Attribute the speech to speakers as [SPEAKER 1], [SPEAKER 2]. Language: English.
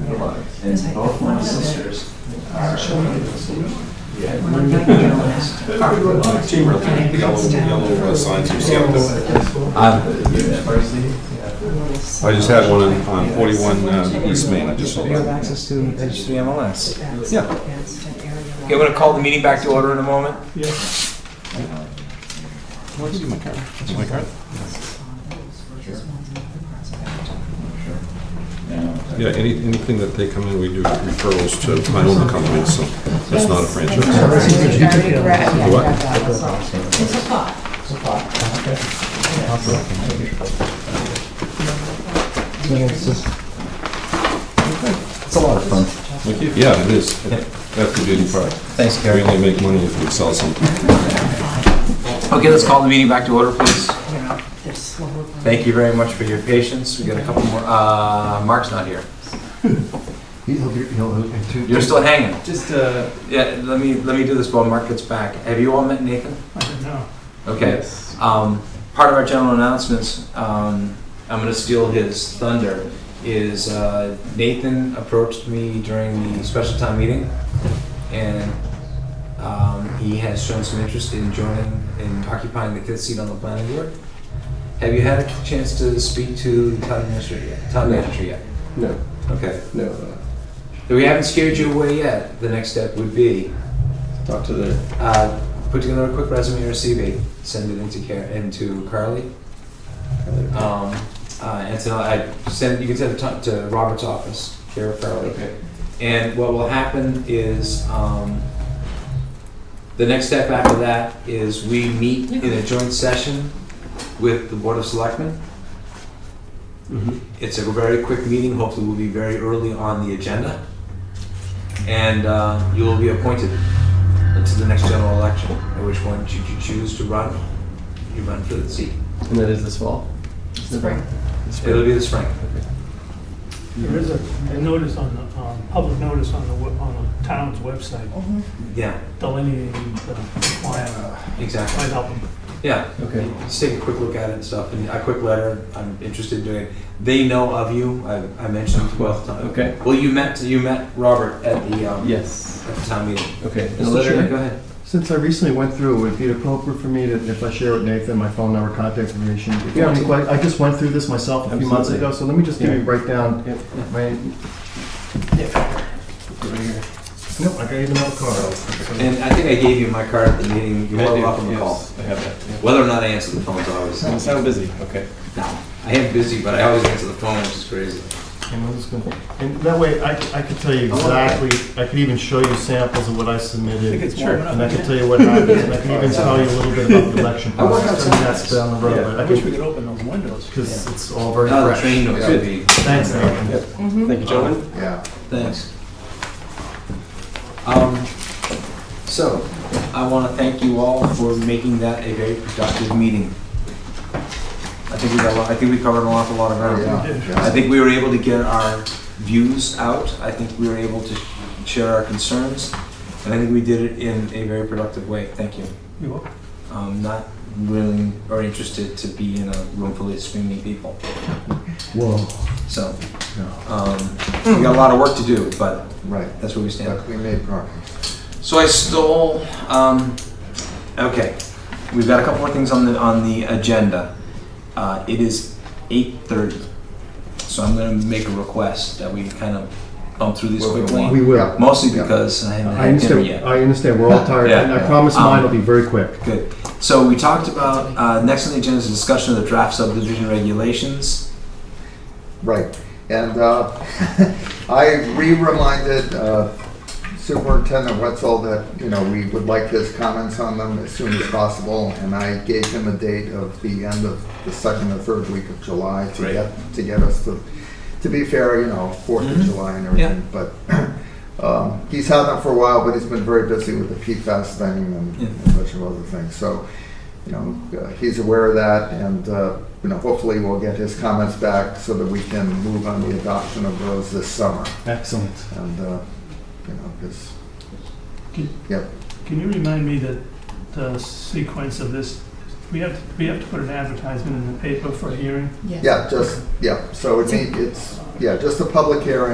[SPEAKER 1] brother,
[SPEAKER 2] Is
[SPEAKER 1] and
[SPEAKER 2] it-
[SPEAKER 1] both my
[SPEAKER 2] one of it?
[SPEAKER 1] sisters
[SPEAKER 3] Um,
[SPEAKER 1] are. Yeah.
[SPEAKER 2] Okay,
[SPEAKER 4] Chamberlain, yellow,
[SPEAKER 2] it's down.
[SPEAKER 4] yellow uh, signs you see up there.
[SPEAKER 5] Uh,
[SPEAKER 1] University, yeah.
[SPEAKER 4] I just had one on- on 41 uh, East Main, I just saw
[SPEAKER 5] You have
[SPEAKER 4] that.
[SPEAKER 5] access to registry MLS.
[SPEAKER 2] Yeah.
[SPEAKER 5] Okay, I'm gonna call the meeting back to order in a moment.
[SPEAKER 4] My card? Yeah, any, anything that they come in, we do referrals to. I own the company, so that's not a franchise. What?
[SPEAKER 2] It's a thought.
[SPEAKER 1] It's a lot of fun.
[SPEAKER 4] Thank you. Yeah, it is. That's the beauty part.
[SPEAKER 1] Thanks,
[SPEAKER 4] We
[SPEAKER 1] Gary.
[SPEAKER 4] only make money if we sell something.
[SPEAKER 5] Okay, let's call the meeting back to order, please.
[SPEAKER 2] They're slower.
[SPEAKER 5] Thank you very much for your patience. We got a couple more, uh, Mark's not here. You're still hanging.
[SPEAKER 1] Just, uh,
[SPEAKER 5] Yeah, let me, let me do this while Mark gets back. Have you all met Nathan? No. Okay.
[SPEAKER 1] yes.
[SPEAKER 5] Um, part of our general announcements, um, I'm gonna steal his thunder, is, uh, Nathan approached me during the special town meeting and, um, he has shown some interest in joining, in occupying the fifth seat on the planning board. Have you had a chance to speak to the town administrator yet? Town manager yet?
[SPEAKER 6] No,
[SPEAKER 5] Okay.
[SPEAKER 6] no. uh,
[SPEAKER 5] If we haven't scared you away yet, the next step would be
[SPEAKER 6] Talk to the,
[SPEAKER 5] Uh, put together a quick resume or CV, send it into Car- into Carly. Um, uh, and so I send you can send it to, to Robert's office, Kara Carly.
[SPEAKER 6] okay.
[SPEAKER 5] And what will happen is um, the next step after that is we meet in a joint session with the Board of Selectmen. It's a very quick meeting. Hopefully, we'll be very early on the agenda, and uh, you will be appointed to the next general election. At which point, should you choose to run, you run for the seat.
[SPEAKER 6] And that is this fall?
[SPEAKER 2] Spring.
[SPEAKER 5] It'll be this spring.
[SPEAKER 7] There is a a notice on the, um, public notice on the, we- on the town's website uh,
[SPEAKER 5] Yeah,
[SPEAKER 7] delineating the plan,
[SPEAKER 5] exactly.
[SPEAKER 7] might help them.
[SPEAKER 5] Yeah,
[SPEAKER 6] Okay.
[SPEAKER 5] Just take a quick look at it and stuff, and a quick letter, I'm interested in doing it. They know of you, I, I mentioned twelve times.
[SPEAKER 6] Okay.
[SPEAKER 5] Well, you met, you met Robert at the, um,
[SPEAKER 6] Yes.
[SPEAKER 5] at the town meeting.
[SPEAKER 6] Okay.
[SPEAKER 5] The
[SPEAKER 6] Mr.
[SPEAKER 5] letter- Go
[SPEAKER 6] Chair,
[SPEAKER 5] ahead.
[SPEAKER 3] Since I recently went through, would it be appropriate for me to, if I share with Nathan my phone number, contact information? If you have any que- I just went through this myself a few months
[SPEAKER 6] Absolutely.
[SPEAKER 3] ago, so let me just give you
[SPEAKER 6] Yeah.
[SPEAKER 3] a breakdown.
[SPEAKER 6] Yep.
[SPEAKER 3] My,
[SPEAKER 6] right here.
[SPEAKER 3] nope, I got even another card.
[SPEAKER 5] And I think I gave you my card at the meeting, you
[SPEAKER 6] I
[SPEAKER 5] were
[SPEAKER 6] do,
[SPEAKER 5] off on the
[SPEAKER 6] yes,
[SPEAKER 5] call.
[SPEAKER 6] I have that.
[SPEAKER 5] Whether or not I answer the phone's always,
[SPEAKER 6] yeah.
[SPEAKER 5] no,
[SPEAKER 6] It's not busy, okay.
[SPEAKER 5] I am busy, but I always answer the phone, which is crazy.
[SPEAKER 3] And I'm just gonna- And that way, I, c- I could tell you exactly, I could even show you samples of what I submitted.
[SPEAKER 6] it's warm enough.
[SPEAKER 3] And I could tell you what happened, and I can even tell you a little bit about the election
[SPEAKER 5] I work
[SPEAKER 3] process. I mean, that's down the road, but I could,
[SPEAKER 7] open those windows.
[SPEAKER 3] because it's all very
[SPEAKER 5] Now the
[SPEAKER 3] fresh.
[SPEAKER 5] train noise would be.
[SPEAKER 3] Thanks, Nathan.
[SPEAKER 2] Mm-hmm.
[SPEAKER 6] Thank you, Uh, gentlemen.
[SPEAKER 3] Yeah.
[SPEAKER 5] Thanks. Um, so, I want to thank you all for making that a very productive meeting. I think we got, a lot- I think we covered an awful lot of ground. I think we were able to get our views out, I think we were able to share our concerns, and I think we did it in a very productive way, thank you.
[SPEAKER 7] You're welcome.
[SPEAKER 5] I'm not willing or interested to be in a room full of screaming people.
[SPEAKER 3] Whoa.
[SPEAKER 5] So, um, we got a lot of work to do, but
[SPEAKER 8] Right,
[SPEAKER 5] that's where we stand.
[SPEAKER 8] but we made progress.
[SPEAKER 5] So I stole. Um, okay, we've got a couple more things on the on the agenda. Uh, it is eight thirty, so I'm going to make a request that we kind of bump through these
[SPEAKER 8] Well, we
[SPEAKER 5] quickly.
[SPEAKER 3] We will.
[SPEAKER 5] Mostly
[SPEAKER 8] Yeah.
[SPEAKER 5] because I haven't
[SPEAKER 3] I
[SPEAKER 5] had dinner
[SPEAKER 3] understand.
[SPEAKER 5] yet.
[SPEAKER 3] I understand. We're all tired.
[SPEAKER 5] Yeah.
[SPEAKER 3] and I promise
[SPEAKER 5] Um,
[SPEAKER 3] mine will be very quick.
[SPEAKER 5] Good. So we talked about uh, next on the agenda is discussion of the draft subdivision regulations.
[SPEAKER 8] Right, and uh, I re-reminded uh, Superintendent Wetzel that, you know, we would like his comments on them as soon as possible, and I gave him a date of the end of the second or third week of July to
[SPEAKER 5] Right.
[SPEAKER 8] get, to get us to, to be fair, you know, Fourth of
[SPEAKER 6] Mm-hmm.
[SPEAKER 5] Mhm.
[SPEAKER 8] July and everything, but um, he's had them for a while, but he's been very busy with the PFAS thing and
[SPEAKER 5] Yeah.
[SPEAKER 8] and a bunch of other things, so, you know, uh, he's aware of that, and, uh, you know, hopefully we'll get his comments back so that we can move on the adoption of those this summer.
[SPEAKER 3] Excellent.
[SPEAKER 8] And, uh, you know, because,
[SPEAKER 7] Can-
[SPEAKER 8] yep,
[SPEAKER 7] Can you remind me that the sequence of this, we have, to- we have to put an advertisement in the paper for a hearing?
[SPEAKER 2] Yeah.
[SPEAKER 8] yeah, just, yeah, so it's, it's, yeah, just a public hearing